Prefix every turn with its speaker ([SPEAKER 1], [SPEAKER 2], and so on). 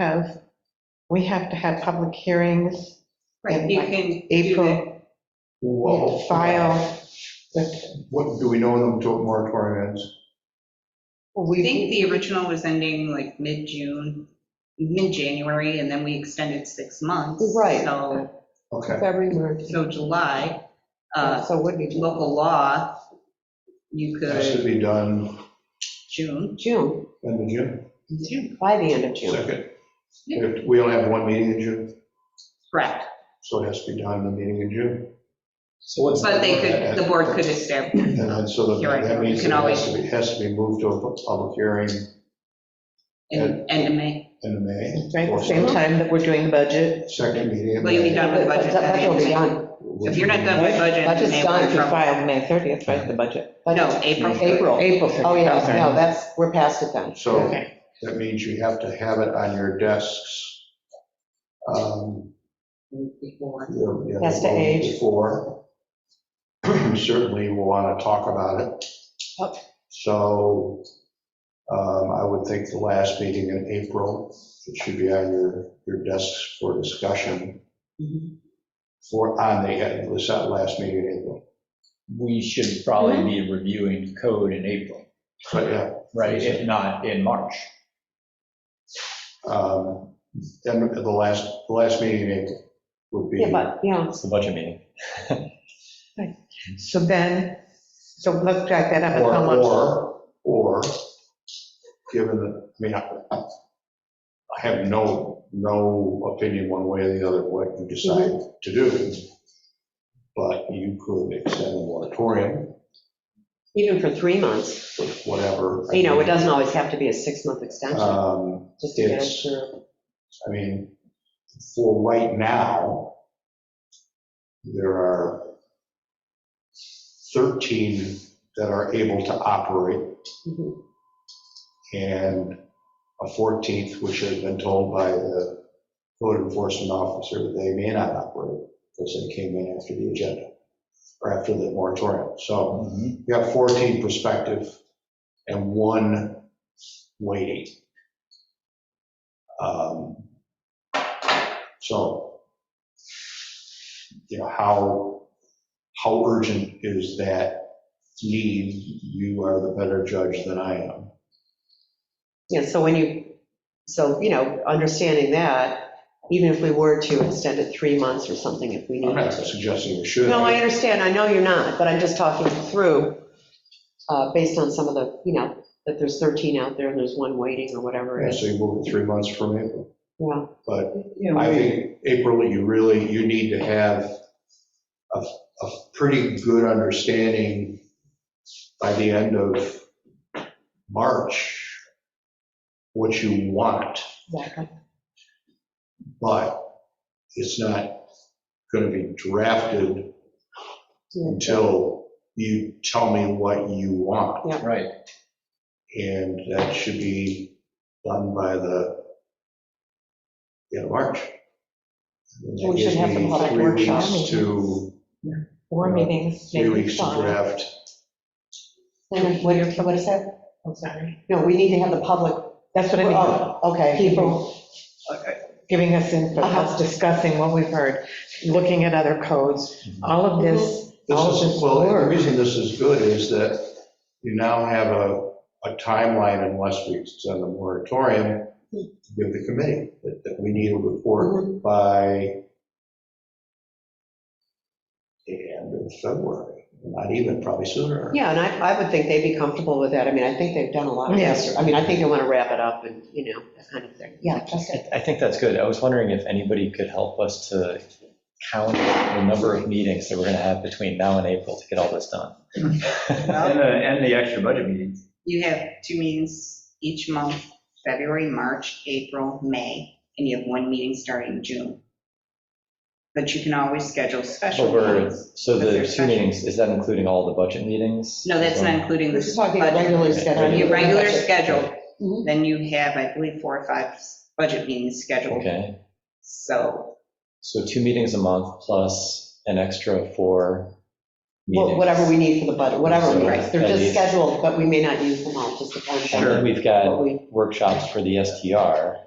[SPEAKER 1] have, we have to have public hearings,
[SPEAKER 2] Right, you can do that.
[SPEAKER 1] April,
[SPEAKER 3] Well,
[SPEAKER 1] file. with-
[SPEAKER 3] What, do we know when the moratorium ends?
[SPEAKER 2] I
[SPEAKER 1] We,
[SPEAKER 2] think the original was ending like mid-June, mid-January, and then we extended six months.
[SPEAKER 1] Right.
[SPEAKER 2] So,
[SPEAKER 3] Okay,
[SPEAKER 1] February, March,
[SPEAKER 2] so July, uh,
[SPEAKER 1] so it would be
[SPEAKER 2] local law, you
[SPEAKER 3] that
[SPEAKER 2] could,
[SPEAKER 3] should be done
[SPEAKER 2] June,
[SPEAKER 1] June,
[SPEAKER 3] end of June,
[SPEAKER 2] June,
[SPEAKER 1] by the end of June.
[SPEAKER 3] second. If We only have one meeting in June,
[SPEAKER 2] correct.
[SPEAKER 3] so it has to be done in the meeting in June.
[SPEAKER 4] So what's,
[SPEAKER 2] But they could, the board could establish,
[SPEAKER 3] And then, so
[SPEAKER 2] You're
[SPEAKER 3] that
[SPEAKER 2] right,
[SPEAKER 3] that
[SPEAKER 2] you
[SPEAKER 3] means it
[SPEAKER 2] can
[SPEAKER 3] has to be, has to be moved to a public hearing
[SPEAKER 2] in end of May.
[SPEAKER 3] in May.
[SPEAKER 1] Right, the same time that we're doing the budget.
[SPEAKER 3] Second meeting in
[SPEAKER 2] Well, you'll be
[SPEAKER 3] May.
[SPEAKER 2] done with the budget.
[SPEAKER 1] But
[SPEAKER 2] by the
[SPEAKER 1] Budget
[SPEAKER 2] end of
[SPEAKER 1] will be
[SPEAKER 2] May.
[SPEAKER 1] done.
[SPEAKER 2] If you're not done with budget. in
[SPEAKER 1] Budget's
[SPEAKER 2] May,
[SPEAKER 1] done
[SPEAKER 2] we're
[SPEAKER 1] if you
[SPEAKER 2] from-
[SPEAKER 1] file May 30th, right, the budget?
[SPEAKER 2] No, April.
[SPEAKER 1] April. April. Oh, yeah, no, that's, we're past it then.
[SPEAKER 3] So
[SPEAKER 1] Okay.
[SPEAKER 3] that means you have to have it on your desks. um,
[SPEAKER 2] Before.
[SPEAKER 3] you know,
[SPEAKER 1] Has to age.
[SPEAKER 3] Before. Certainly will want to talk about it.
[SPEAKER 1] Yep.
[SPEAKER 3] So um, I would think the last meeting in April, it should be on your, your desks for discussion
[SPEAKER 1] Mm-hmm.
[SPEAKER 2] Mhm.
[SPEAKER 3] for, on the, it was that last meeting in April.
[SPEAKER 4] we should probably be reviewing code in April,
[SPEAKER 3] But yeah,
[SPEAKER 4] right, if not in March.
[SPEAKER 3] um, then the last, the last meeting in April would be.
[SPEAKER 1] Yeah, but, you know,
[SPEAKER 4] It's the budget meeting.
[SPEAKER 1] so then, so let's drag that up.
[SPEAKER 3] Or,
[SPEAKER 1] How much?
[SPEAKER 3] or, or, given that, I mean, I I- I have no, no opinion one way or the other what you decide
[SPEAKER 5] Mm-hmm.
[SPEAKER 3] to do, but you could extend the moratorium,
[SPEAKER 5] Even for three months,
[SPEAKER 3] whatever.
[SPEAKER 5] you know, it doesn't always have to be a six-month extension,
[SPEAKER 3] Um,
[SPEAKER 5] just to get us
[SPEAKER 3] it's-
[SPEAKER 5] through.
[SPEAKER 3] I mean, for right now, there are 13 that are able to operate
[SPEAKER 5] Mhm.
[SPEAKER 3] and a 14th, which has been told by the code enforcement officer that they may not operate because they came in after the agenda or after the moratorium. So
[SPEAKER 4] Mhm.
[SPEAKER 3] you have 14 prospective and one waiting. Um, So, you know, how, how urgent is that need? You are the better judge than I am.
[SPEAKER 5] Yeah, so when you, so, you know, understanding that, even if we were to extend it three months or something, if we
[SPEAKER 3] I'm
[SPEAKER 5] needed
[SPEAKER 3] not
[SPEAKER 5] to.
[SPEAKER 3] suggesting you should.
[SPEAKER 5] No, I understand, I know you're not, but I'm just talking through, uh, based on some of the, you know, that there's 13 out there and there's one waiting or whatever
[SPEAKER 3] Yeah,
[SPEAKER 5] it is.
[SPEAKER 3] So you move it three months from April.
[SPEAKER 5] Yeah,
[SPEAKER 3] But
[SPEAKER 1] You know,
[SPEAKER 3] I think April, you really, you need to have a, a pretty good understanding by the end of March, what you want,
[SPEAKER 5] exactly.
[SPEAKER 3] but it's not going to be drafted until you tell me what you want.
[SPEAKER 4] Right,
[SPEAKER 3] And that should be done by the, end of March. And that
[SPEAKER 1] We should
[SPEAKER 3] gives
[SPEAKER 1] have
[SPEAKER 3] me
[SPEAKER 1] the public workshop
[SPEAKER 3] Three weeks to,
[SPEAKER 1] Four meetings,
[SPEAKER 3] three
[SPEAKER 1] maybe
[SPEAKER 3] weeks to
[SPEAKER 1] five.
[SPEAKER 3] draft.
[SPEAKER 5] Then what, what is that?
[SPEAKER 1] I'm sorry.
[SPEAKER 5] No, we need to have the public,
[SPEAKER 1] That's what I mean,
[SPEAKER 5] oh, okay.
[SPEAKER 1] people giving us input,
[SPEAKER 5] Uh-huh.
[SPEAKER 1] us discussing what we've heard, looking at other codes,
[SPEAKER 4] Mm-hmm.
[SPEAKER 1] all of this,
[SPEAKER 3] This
[SPEAKER 1] all of
[SPEAKER 3] is,
[SPEAKER 1] this
[SPEAKER 3] well, the
[SPEAKER 1] work.
[SPEAKER 3] reason this is good is that you now have a, a timeline unless we extend the moratorium to give the committee, that, that we need a
[SPEAKER 1] Mm-hmm.
[SPEAKER 3] report by the end of February, not even, probably sooner.
[SPEAKER 5] Yeah, and I, I would think they'd be comfortable with that. I mean, I think they've done a lot of
[SPEAKER 1] Yeah.
[SPEAKER 5] this. I mean, I think they want to wrap it up and, you know, that kind of thing. Yeah, just
[SPEAKER 4] I I think that's good. I was wondering if anybody could help us to count the number of meetings that we're going to have between now and April to get all this done.
[SPEAKER 6] And the, and the extra budget meetings.
[SPEAKER 2] You have two meetings each month, February, March, April, May, and you have one meeting starting in June. But you can always schedule special
[SPEAKER 4] Over,
[SPEAKER 2] meetings.
[SPEAKER 4] so
[SPEAKER 2] But they're
[SPEAKER 4] the two
[SPEAKER 2] special.
[SPEAKER 4] meetings, is that including all the budget meetings?
[SPEAKER 2] No, that's not including
[SPEAKER 5] We're
[SPEAKER 2] the
[SPEAKER 5] just talking regularly scheduled.
[SPEAKER 2] Your
[SPEAKER 4] Your
[SPEAKER 2] regular schedule,
[SPEAKER 5] Mhm.
[SPEAKER 2] then you have, I believe, four or five budget meetings scheduled.
[SPEAKER 4] Okay.
[SPEAKER 2] So,
[SPEAKER 4] So two meetings a month plus an extra four
[SPEAKER 5] Well,
[SPEAKER 4] meetings.
[SPEAKER 5] Whatever we need for the budget, whatever, we need.
[SPEAKER 4] Right.
[SPEAKER 5] they're
[SPEAKER 4] At
[SPEAKER 5] just
[SPEAKER 4] least.
[SPEAKER 5] scheduled, but we may not use them all, just depends
[SPEAKER 4] And
[SPEAKER 5] on
[SPEAKER 4] then we've
[SPEAKER 5] what
[SPEAKER 4] got
[SPEAKER 5] we,
[SPEAKER 4] workshops for the STR,